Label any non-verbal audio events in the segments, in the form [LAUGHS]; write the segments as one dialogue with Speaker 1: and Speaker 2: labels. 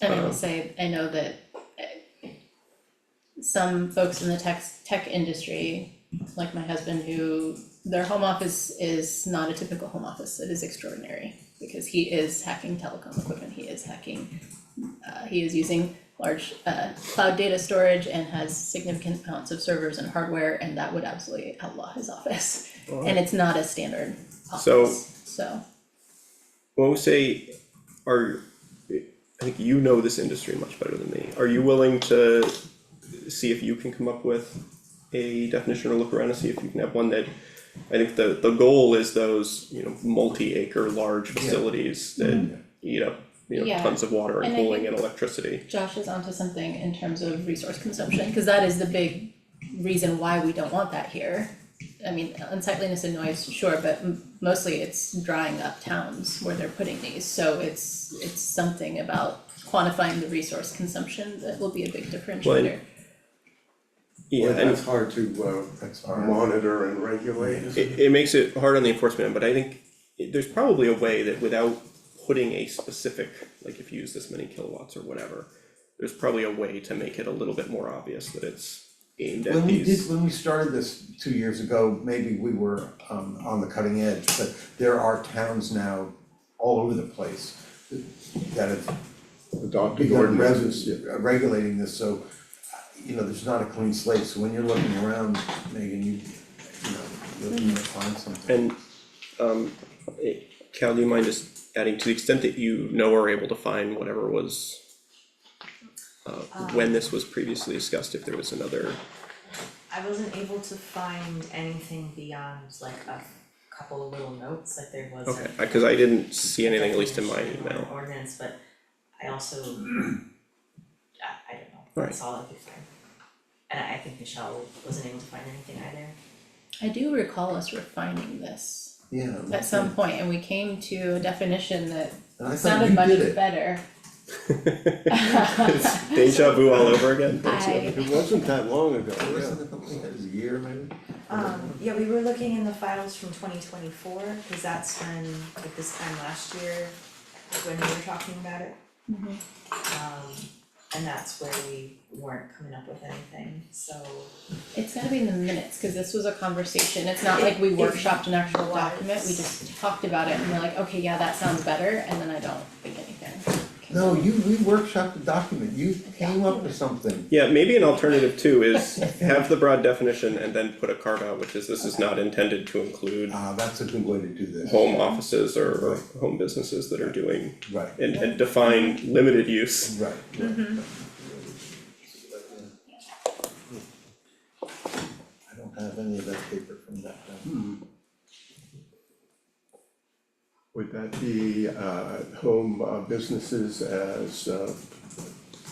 Speaker 1: And I will say, I know that uh, some folks in the tech, tech industry, like my husband, who their home office is not a typical home office, it is extraordinary. Because he is hacking telecom equipment, he is hacking, uh, he is using large, uh, cloud data storage and has significant amounts of servers and hardware, and that would absolutely outlaw his office. And it's not a standard
Speaker 2: So-
Speaker 1: office, so,
Speaker 2: When we say, are, I think you know this industry much better than me, are you willing to see if you can come up with a definition or look around and see if you can have one that, I think the, the goal is those, you know, multi-acre large facilities that eat up, you know,
Speaker 1: Yeah.
Speaker 2: tons of water and
Speaker 1: And I
Speaker 2: cooling
Speaker 1: think-
Speaker 2: and electricity.
Speaker 1: Josh is onto something in terms of resource consumption, because that is the big reason why we don't want that here. I mean, unsightliness and noise, sure, but m- mostly it's drying up towns where they're putting these, so it's, it's something about quantifying the resource consumption that will be a big differentiator.
Speaker 2: Yeah,
Speaker 3: Well,
Speaker 2: and
Speaker 3: that's hard to
Speaker 4: That's
Speaker 3: uh
Speaker 4: hard.
Speaker 3: monitor and regulate.
Speaker 2: It, it makes it hard on the enforcement, end, but I think it- there's probably a way that without putting a specific, like if you use this many kilowatts or whatever, there's probably a way to make it a little bit more obvious that it's aimed at
Speaker 4: When we
Speaker 2: these.
Speaker 4: did, when we started this two years ago, maybe we were um on the cutting edge, but there are towns now all over the place that have
Speaker 3: Adopted
Speaker 4: begun
Speaker 3: ordinances.
Speaker 4: res- uh, regulating this, so uh, you know, there's not a clean slate, so when you're looking around, Megan, you you know, you'll you'll find something.
Speaker 2: And, um, eh, Cal, do you mind just adding, to the extent that you know or able to find whatever was uh, when this was previously discussed, if there was another,
Speaker 5: I wasn't able to find anything beyond like a couple of little notes, like there was
Speaker 2: okay,
Speaker 5: a
Speaker 2: I- cause I didn't see anything, at least in my
Speaker 5: definition or an
Speaker 2: email. [LAUGHS]
Speaker 5: ordinance, but I [CLEARS THROAT] also I I don't know,
Speaker 2: Right.
Speaker 5: that's all I could find. And I I think Michelle wasn't able to find anything either.
Speaker 1: I do recall us refining this
Speaker 4: Yeah.
Speaker 1: at some point, and we came to a definition that
Speaker 4: And I thought
Speaker 1: sounded
Speaker 4: you
Speaker 1: much
Speaker 4: did it. [LAUGHS]
Speaker 1: better. [LAUGHS]
Speaker 2: It's Deja vu all over again?
Speaker 1: I-
Speaker 3: It wasn't that long ago, yeah.
Speaker 4: Wasn't it something that was a year maybe?
Speaker 5: Um, yeah, we were looking in the files from twenty twenty-four, cause that's when, like this time last year, when we were talking about it.
Speaker 1: Mhm.
Speaker 5: Um, and that's where we weren't coming up with anything, so.
Speaker 1: It's gotta be in the minutes, cause this was a conversation, it's not like we
Speaker 5: It- it
Speaker 1: workshopped an actual
Speaker 5: was.
Speaker 1: document, we just talked about it and we're like, okay, yeah, that sounds better, and then I don't think anything. [LAUGHS] came
Speaker 4: No,
Speaker 1: of it.
Speaker 4: you, we workshopped the document, you came up with something.
Speaker 2: Yeah, maybe an alternative too is have the broad definition and then put a carve out, which is this is not intended to include
Speaker 4: Ah, that's a good way to do this,
Speaker 2: home offices or or home businesses that are doing
Speaker 4: right, right,
Speaker 2: and and define limited use.
Speaker 4: right. I don't have any of that paper from that time.
Speaker 3: Would that be uh home uh, businesses as uh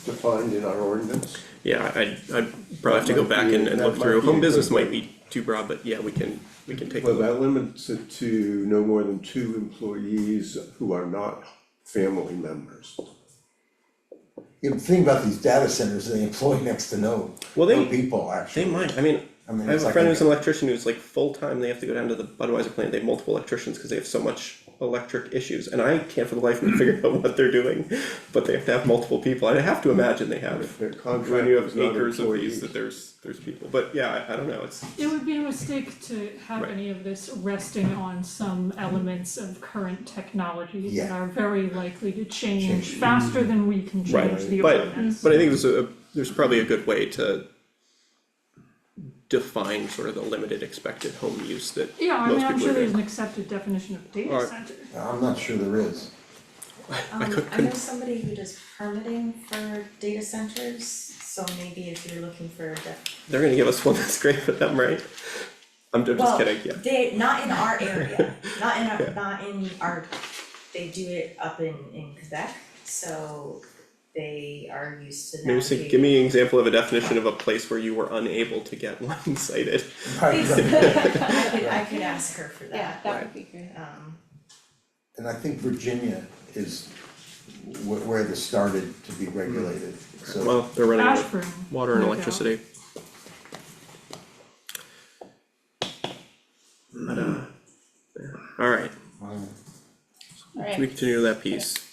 Speaker 3: defined in our ordinance?
Speaker 2: Yeah, I I'd probably have to go back and and look through, home business might be too broad, but yeah, we can, we can take a
Speaker 3: Well,
Speaker 2: look.
Speaker 3: that limits it to no more than two employees who are not family members.
Speaker 4: You know, the thing about these data centers, they employ next to no,
Speaker 2: Well,
Speaker 4: no
Speaker 2: they-
Speaker 4: people
Speaker 2: They
Speaker 4: actually.
Speaker 2: might, I mean,
Speaker 4: I mean,
Speaker 2: I have
Speaker 4: it's
Speaker 2: a
Speaker 4: like
Speaker 2: friend
Speaker 4: a-
Speaker 2: who's an electrician who's like full-time, they have to go down to the Budweiser plant, they have multiple electricians because they have so much electric issues, and I can't for the life of me [LAUGHS] figure out what they're doing, but they have to have multiple people, and I have to imagine they have
Speaker 3: Their
Speaker 2: when you
Speaker 3: contract
Speaker 2: have
Speaker 3: is not
Speaker 2: acres of these,
Speaker 3: employees.
Speaker 2: that there's, there's people, but yeah, I, I don't know, it's,
Speaker 6: It would be a mistake to have
Speaker 2: Right.
Speaker 6: any of this resting on some elements of current technologies that
Speaker 4: Yeah.
Speaker 6: are very likely to
Speaker 4: Change.
Speaker 6: change faster than we can
Speaker 2: Right.
Speaker 6: change the
Speaker 2: But-
Speaker 6: ordinance.
Speaker 2: but I think there's a, there's probably a good way to define sort of the limited expected home use that
Speaker 6: Yeah, I mean,
Speaker 2: most
Speaker 6: I'm
Speaker 2: people
Speaker 6: sure
Speaker 2: are
Speaker 6: there's
Speaker 2: doing.
Speaker 6: an accepted definition of data
Speaker 2: Alright.
Speaker 6: center.
Speaker 4: I'm not sure there is.
Speaker 5: Um,
Speaker 2: could-
Speaker 5: I know somebody who does permitting for data centers, so maybe if you're looking for a def-
Speaker 2: They're gonna give us one that's great for them, right? I'm I'm just
Speaker 5: well,
Speaker 2: kidding, yeah,
Speaker 5: they, not in
Speaker 2: [LAUGHS]
Speaker 5: our area, not in
Speaker 2: Yeah.
Speaker 5: our, not in our, they do it up in in Quebec, so they are used to
Speaker 2: maybe
Speaker 5: navigating.
Speaker 2: say, give me an example of a definition of a place where you were unable to get [LAUGHS] one cited.
Speaker 4: Right, right.
Speaker 5: I could, I could ask her for
Speaker 1: Yeah,
Speaker 5: that,
Speaker 1: that would be great.
Speaker 5: um,
Speaker 4: And I think Virginia is where, where this started to be regulated, so.
Speaker 2: Well, they're running out of
Speaker 6: Ashburn,
Speaker 2: water and
Speaker 6: no doubt.
Speaker 2: electricity. But, uh, yeah. alright,
Speaker 4: um,
Speaker 2: can we
Speaker 1: Alright,
Speaker 2: continue that piece?